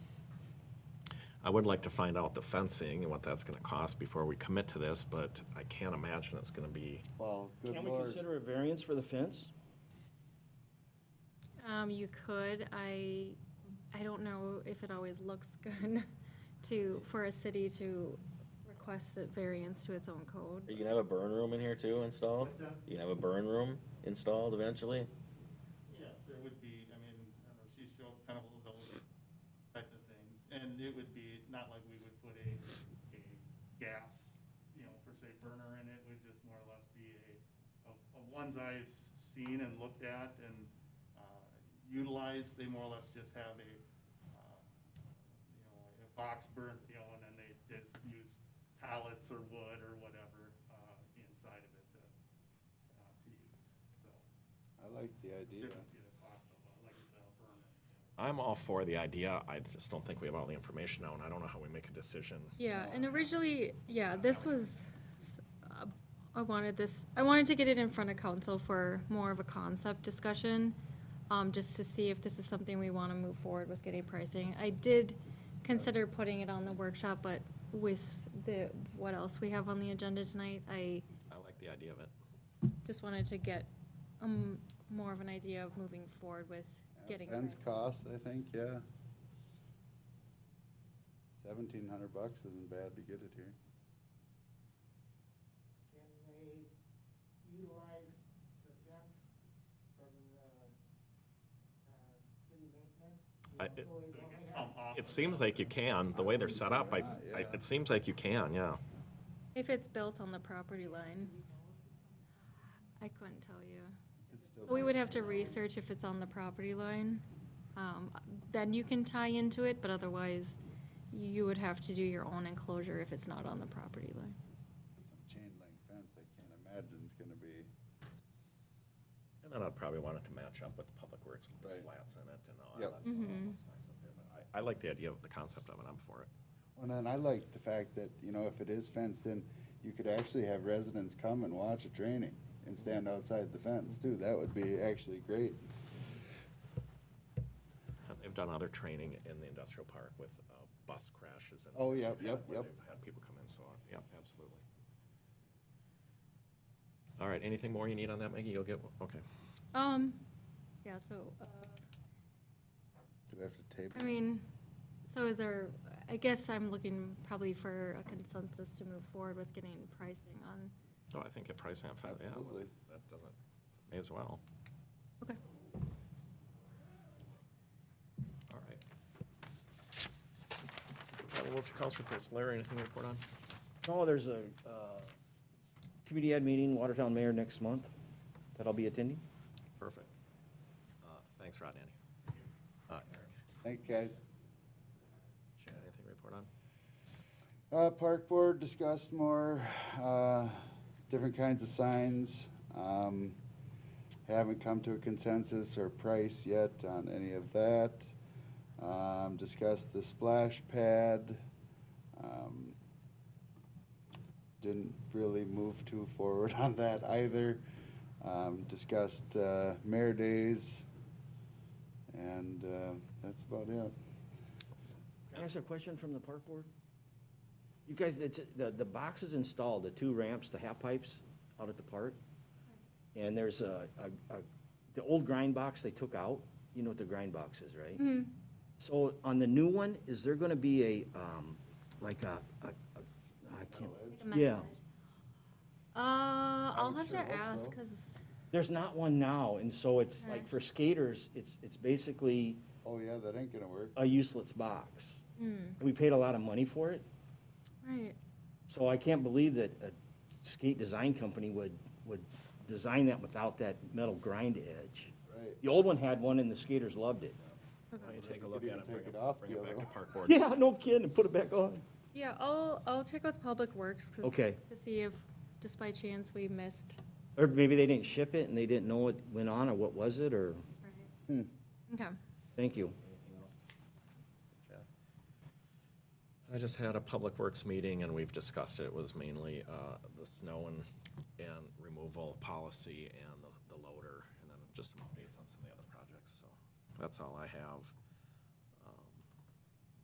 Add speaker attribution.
Speaker 1: I would like to find out the fencing and what that's gonna cost before we commit to this, but I can't imagine it's gonna be,
Speaker 2: Well, good
Speaker 3: Can we
Speaker 2: lord.
Speaker 3: consider a variance for the fence?
Speaker 4: Um, you could, I, I don't know if it always looks good to, for a city to request a variance to its own code.
Speaker 5: Are you gonna have a burn room in here too installed? You gonna have a burn room installed eventually?
Speaker 6: Yeah, there would be, I mean, I don't know, she showed kind of all those type of things. And it would be, not like we would put a, a gas, you know, per se burner in it, it would just more or less be a, a a ones I've seen and looked at and uh, utilized, they more or less just have a, uh, you know, a box burn, you know, and then they just use pallets or wood or whatever uh, inside of it to, uh, to use, so.
Speaker 2: I like the idea.
Speaker 1: I'm all for the idea, I just don't think we have all the information now, and I don't know how we make a decision.
Speaker 4: Yeah, and originally, yeah, this was, s- uh, I wanted this, I wanted to get it in front of council for more of a concept discussion, um, just to see if this is something we want to move forward with getting pricing. I did consider putting it on the workshop, but with the, what else we have on the agenda tonight, I
Speaker 1: I like the idea of it.
Speaker 4: just wanted to get, um, more of an idea of moving forward with getting
Speaker 2: Fence
Speaker 4: pricing.
Speaker 2: costs, I think, yeah. Seventeen hundred bucks isn't bad to get it here.
Speaker 6: Can they utilize the fence from, uh, uh, city maintenance?
Speaker 1: I- it-
Speaker 6: Employees only have-
Speaker 1: It seems like you can, the way they're set up, I, I- it seems like you can, yeah.
Speaker 4: If it's built on the property line. I couldn't tell you.
Speaker 2: It's still-
Speaker 4: We would have to research if it's on the property line. Um, Then you can tie into it, but otherwise you would have to do your own enclosure if it's not on the property line.
Speaker 2: Some chain link fence, I can't imagine it's gonna be,
Speaker 1: And then I'd probably want it to match up with the public works, with the
Speaker 2: Right.
Speaker 1: slats in it and all
Speaker 2: Yep.
Speaker 1: that. stuff. That's nice up there, but I I like the idea of the concept of it, I'm for it.
Speaker 2: well, then I like the fact that, you know, if it is fenced in, you could actually have residents come and watch a training and stand outside the fence too. That would be actually great.
Speaker 1: And Uh, They've done other training in the industrial park with uh, bus crashes and.
Speaker 2: Oh, yep, yep,
Speaker 1: where
Speaker 2: yep.
Speaker 1: they've Had people come in, so, on. yep, absolutely. All right, anything more you need on that, Maggie? You'll get, okay.
Speaker 4: Um, yeah, so, uh,
Speaker 2: Do we have to table?
Speaker 4: I mean, so is there, I guess I'm looking probably for a consensus to move forward with getting pricing on.
Speaker 1: Oh, I think at price and fat, yeah, well,
Speaker 2: Absolutely.
Speaker 1: that doesn't, may as well.
Speaker 4: Okay.
Speaker 1: All right. I will move to council reports. Larry, anything to report on?
Speaker 3: No, Oh, there's a, uh, community ad meeting, Watertown Mayor next month, that I'll be attending.
Speaker 1: Perfect. Uh, Thanks, Rod, Andy. Uh, Eric,
Speaker 2: Thank you, guys.
Speaker 1: Chad, anything to report on?
Speaker 2: Uh, park board discussed more, uh, different kinds of signs. Um, haven't come to a consensus or price yet on any of that. Um, discussed the splash pad. Um, didn't really move too forward on that either. Um, discussed, uh, mayor days. And, uh, that's about it.
Speaker 3: Can I ask a question from the park board? You guys, it's, the, the boxes installed, the two ramps, the half pipes out at the park. And there's a, a, a- the old grind box they took out, you know what the grind box is, right? So on the new one, is there gonna be a, um, like a, a, a- I can't. Yeah,
Speaker 4: Uh, I'll
Speaker 2: would
Speaker 4: have to
Speaker 2: sure hope
Speaker 4: ask,
Speaker 2: so.
Speaker 4: because
Speaker 3: there's not one now, and so it's like
Speaker 4: Right.
Speaker 3: for skaters, it's, it's basically
Speaker 2: Oh, yeah, that ain't gonna work.
Speaker 3: a useless box. We paid a lot of money for it.
Speaker 4: Right.
Speaker 3: So I can't believe that a skate design company would, would design that without that metal grind edge.
Speaker 2: Right.
Speaker 3: The old one had one and the skaters loved it.
Speaker 1: Why don't you take a
Speaker 2: could
Speaker 1: look
Speaker 2: even
Speaker 1: at it,
Speaker 2: take
Speaker 1: bring it,
Speaker 2: it off
Speaker 1: bring
Speaker 2: the
Speaker 1: it
Speaker 2: other
Speaker 1: back to
Speaker 2: one.
Speaker 1: park board?
Speaker 3: Yeah, no kidding, put it back on.
Speaker 4: Yeah, I'll, I'll check with Public Works 'cause-
Speaker 3: Okay.
Speaker 4: to see if, just by chance, we missed.
Speaker 3: Or maybe they didn't ship it and they didn't know what went on or what was it or, Hmm.
Speaker 4: Okay.
Speaker 3: thank you.
Speaker 1: I just had a public works meeting and we've discussed it, It was mainly uh, the snow and, and removal policy and the- the loader, and then just some updates on some of the other projects, so that's all I have. Um,